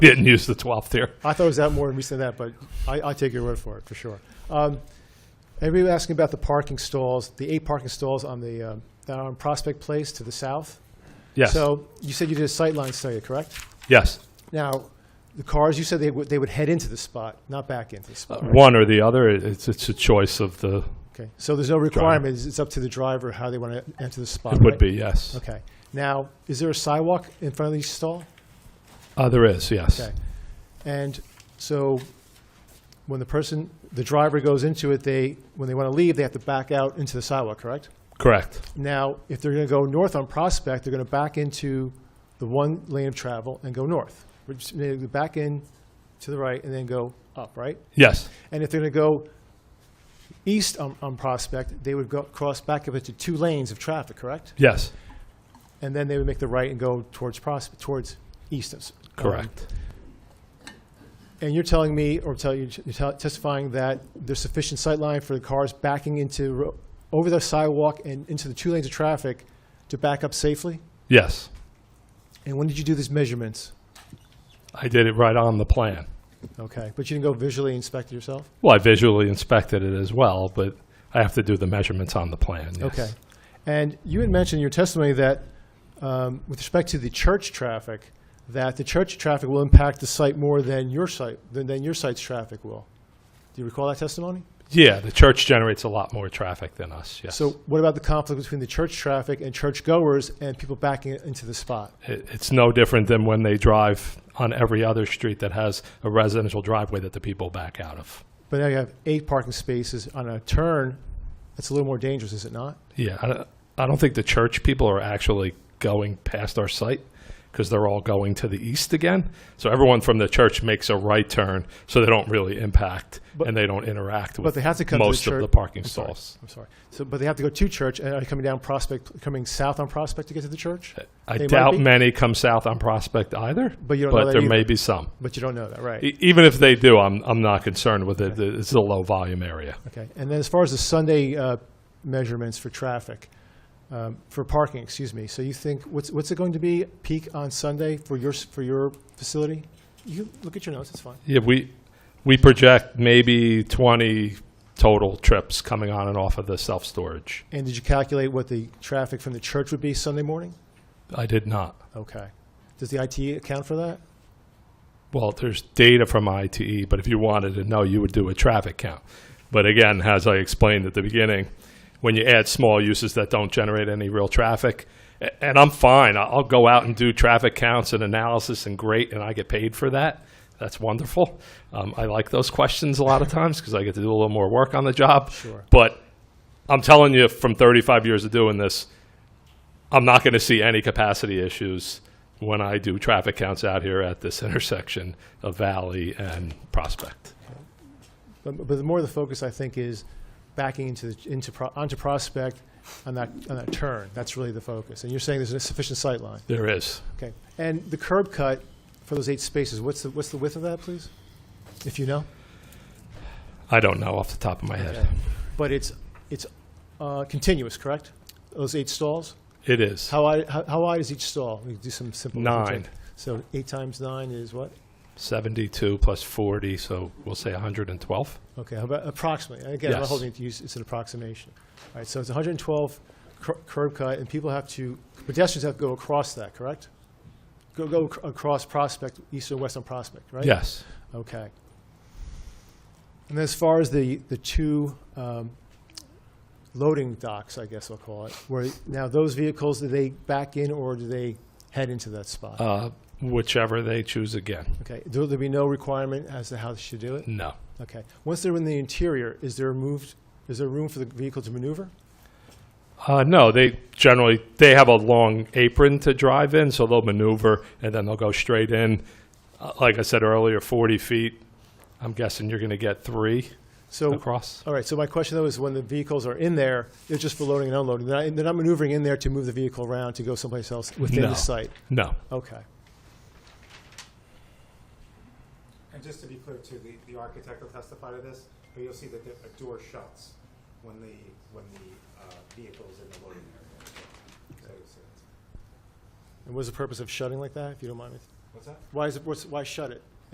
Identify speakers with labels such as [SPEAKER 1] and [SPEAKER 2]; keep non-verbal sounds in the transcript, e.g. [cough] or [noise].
[SPEAKER 1] didn't use the 12th here.
[SPEAKER 2] I thought it was out more recent than that, but I, I take your word for it, for sure. Um, Everybody was asking about the parking stalls, the eight parking stalls on the, um, that are on Prospect Place to the south.
[SPEAKER 1] Yes,
[SPEAKER 2] So you said you did a sightline study, correct?
[SPEAKER 1] yes.
[SPEAKER 2] Now, the cars, you said they would, they would head into the spot, not back into the spot, right?
[SPEAKER 1] One or the other, it- it's, it's a choice of the,
[SPEAKER 2] Okay, so there's no requirements, it's up to the driver how they want to enter the spot,
[SPEAKER 1] it would
[SPEAKER 2] right?
[SPEAKER 1] be, yes.
[SPEAKER 2] Okay. Now, is there a sidewalk in front of each stall?
[SPEAKER 1] Uh, There is, yes.
[SPEAKER 2] Okay. And so when the person, the driver goes into it, they, when they want to leave, they have to back out into the sidewalk, correct?
[SPEAKER 1] Correct,
[SPEAKER 2] Now, if they're going to go north on Prospect, they're going to back into the one lane of travel and go north. Which- they go Back in to the right and then go up, right?
[SPEAKER 1] yes.
[SPEAKER 2] And if they're going to go east on, on Prospect, they would go, cross back up into two lanes of traffic, correct?
[SPEAKER 1] Yes,
[SPEAKER 2] And then they would make the right and go towards Prospect, towards east. of-
[SPEAKER 1] correct.
[SPEAKER 2] And you're telling me, or tell you, you're tell- testifying that there's sufficient sight line for the cars backing into, ro- over the sidewalk and into the two lanes of traffic to back up safely?
[SPEAKER 1] Yes.
[SPEAKER 2] And when did you do these measurements?
[SPEAKER 1] I did it right on the plan.
[SPEAKER 2] Okay, but you didn't go visually inspect it yourself?
[SPEAKER 1] Well, I visually inspected it as well, but I have to do the measurements on the plan, yes.
[SPEAKER 2] Okay. And you had mentioned in your testimony that, um, with respect to the church traffic, that the church traffic will impact the site more than your site, than, than your site's traffic will. Do you recall that testimony?
[SPEAKER 1] Yeah, the church generates a lot more traffic than us, yes.
[SPEAKER 2] So what about the conflict between the church traffic and churchgoers and people backing into the spot?
[SPEAKER 1] It, it's no different than when they drive on every other street that has a residential driveway that the people back out of.
[SPEAKER 2] But now you have eight parking spaces on a turn. That's a little more dangerous, is it not?
[SPEAKER 1] Yeah, I don't, I don't think the church people are actually going past our site because they're all going to the east again. So everyone from the church makes a right turn, so they don't really impact
[SPEAKER 2] But-
[SPEAKER 1] and they don't interact with
[SPEAKER 2] But they have to come to the
[SPEAKER 1] most
[SPEAKER 2] church.
[SPEAKER 1] of the parking
[SPEAKER 2] I'm sorry.
[SPEAKER 1] stalls.
[SPEAKER 2] I'm sorry. So, but they have to go to church and are coming down Prospect, coming south on Prospect to get to the church?
[SPEAKER 1] I
[SPEAKER 2] They might
[SPEAKER 1] doubt
[SPEAKER 2] be.
[SPEAKER 1] many come south on Prospect either,
[SPEAKER 2] But you don't know
[SPEAKER 1] but
[SPEAKER 2] that
[SPEAKER 1] there
[SPEAKER 2] either.
[SPEAKER 1] may be some.
[SPEAKER 2] But you don't know that, right?
[SPEAKER 1] E- even if they do, I'm I'm not concerned with it. It's a low volume area.
[SPEAKER 2] Okay. And then as far as the Sunday uh, measurements for traffic, um, for parking, excuse me. So you think, what's, what's it going to be peak on Sunday for your, s- for your facility? You can look at your notes, it's fine.
[SPEAKER 1] Yeah, we we project maybe 20 total trips coming on and off of the self storage.
[SPEAKER 2] And did you calculate what the traffic from the church would be Sunday morning?
[SPEAKER 1] I did not.
[SPEAKER 2] Okay. Does the IT account for that?
[SPEAKER 1] Well, there's data from ITE, but if you wanted to know, you would do a traffic count. But again, as I explained at the beginning, when you add small uses that don't generate any real traffic, a- and I'm fine, I- I'll go out and do traffic counts and analysis and great, and I get paid for that. That's wonderful. Um, I like those questions a lot of times because I get to do a little more work on the job.
[SPEAKER 2] Sure.
[SPEAKER 1] But I'm telling you, from 35 years of doing this, I'm not going to see any capacity issues when I do traffic counts out here at this [laughs] intersection of Valley and Prospect.
[SPEAKER 2] But, but the more the focus, I think, is backing into, the- into, Pro- onto Prospect on that, on that turn. That's really the focus. And you're saying there's a sufficient sight line.
[SPEAKER 1] There is.
[SPEAKER 2] Okay. And the curb cut for those eight spaces, what's the, what's the width of that, please? If you know?
[SPEAKER 1] I don't know off the top of my head.
[SPEAKER 2] Okay. But it's, it's uh, continuous, correct? Those eight stalls?
[SPEAKER 1] It is.
[SPEAKER 2] How wide, how how wide is each stall? We do some simple.
[SPEAKER 1] Nine.
[SPEAKER 2] So eight times nine is what?
[SPEAKER 1] 72 plus 40, so we'll say 112.
[SPEAKER 2] Okay, how about approximately? And Again, I'm not
[SPEAKER 1] Yes.
[SPEAKER 2] holding it to use, it's an approximation. All right, so it's 112 cur- curb cut, and people have to, pedestrians have to go across that, correct? Go, go ac- across Prospect, east or west on Prospect, right?
[SPEAKER 1] Yes.
[SPEAKER 2] Okay. And as far as the, the two um, loading docks, I guess I'll call it, where, now those vehicles, do they back in or do they head into that spot?
[SPEAKER 1] Uh, whichever they choose again.
[SPEAKER 2] Okay, there'll there be no requirement as to how they should do it?
[SPEAKER 1] No.
[SPEAKER 2] Okay. Once they're in the interior, is there moved, is there room for the vehicle to maneuver?
[SPEAKER 1] Uh, no, they generally they have a long apron to drive in, so they'll maneuver and then they'll go straight in. Uh, like I said earlier, 40 feet. I'm guessing you're going to get three
[SPEAKER 2] So,
[SPEAKER 1] across.
[SPEAKER 2] all right, so my question though is when the vehicles are in there, they're just for loading and unloading. They're not, they're not maneuvering in there to move the vehicle around to go someplace else within
[SPEAKER 1] No.
[SPEAKER 2] the site?
[SPEAKER 1] No.
[SPEAKER 2] Okay.
[SPEAKER 3] And just to be clear too, the, the architect will testify to this, but you'll see that the- a door shuts when the, when the uh, vehicle is in the loading area. So you'll see that.
[SPEAKER 2] And what is the purpose of shutting like that, if you don't mind me?
[SPEAKER 3] What's that?
[SPEAKER 2] Why is it, what's, why shut it?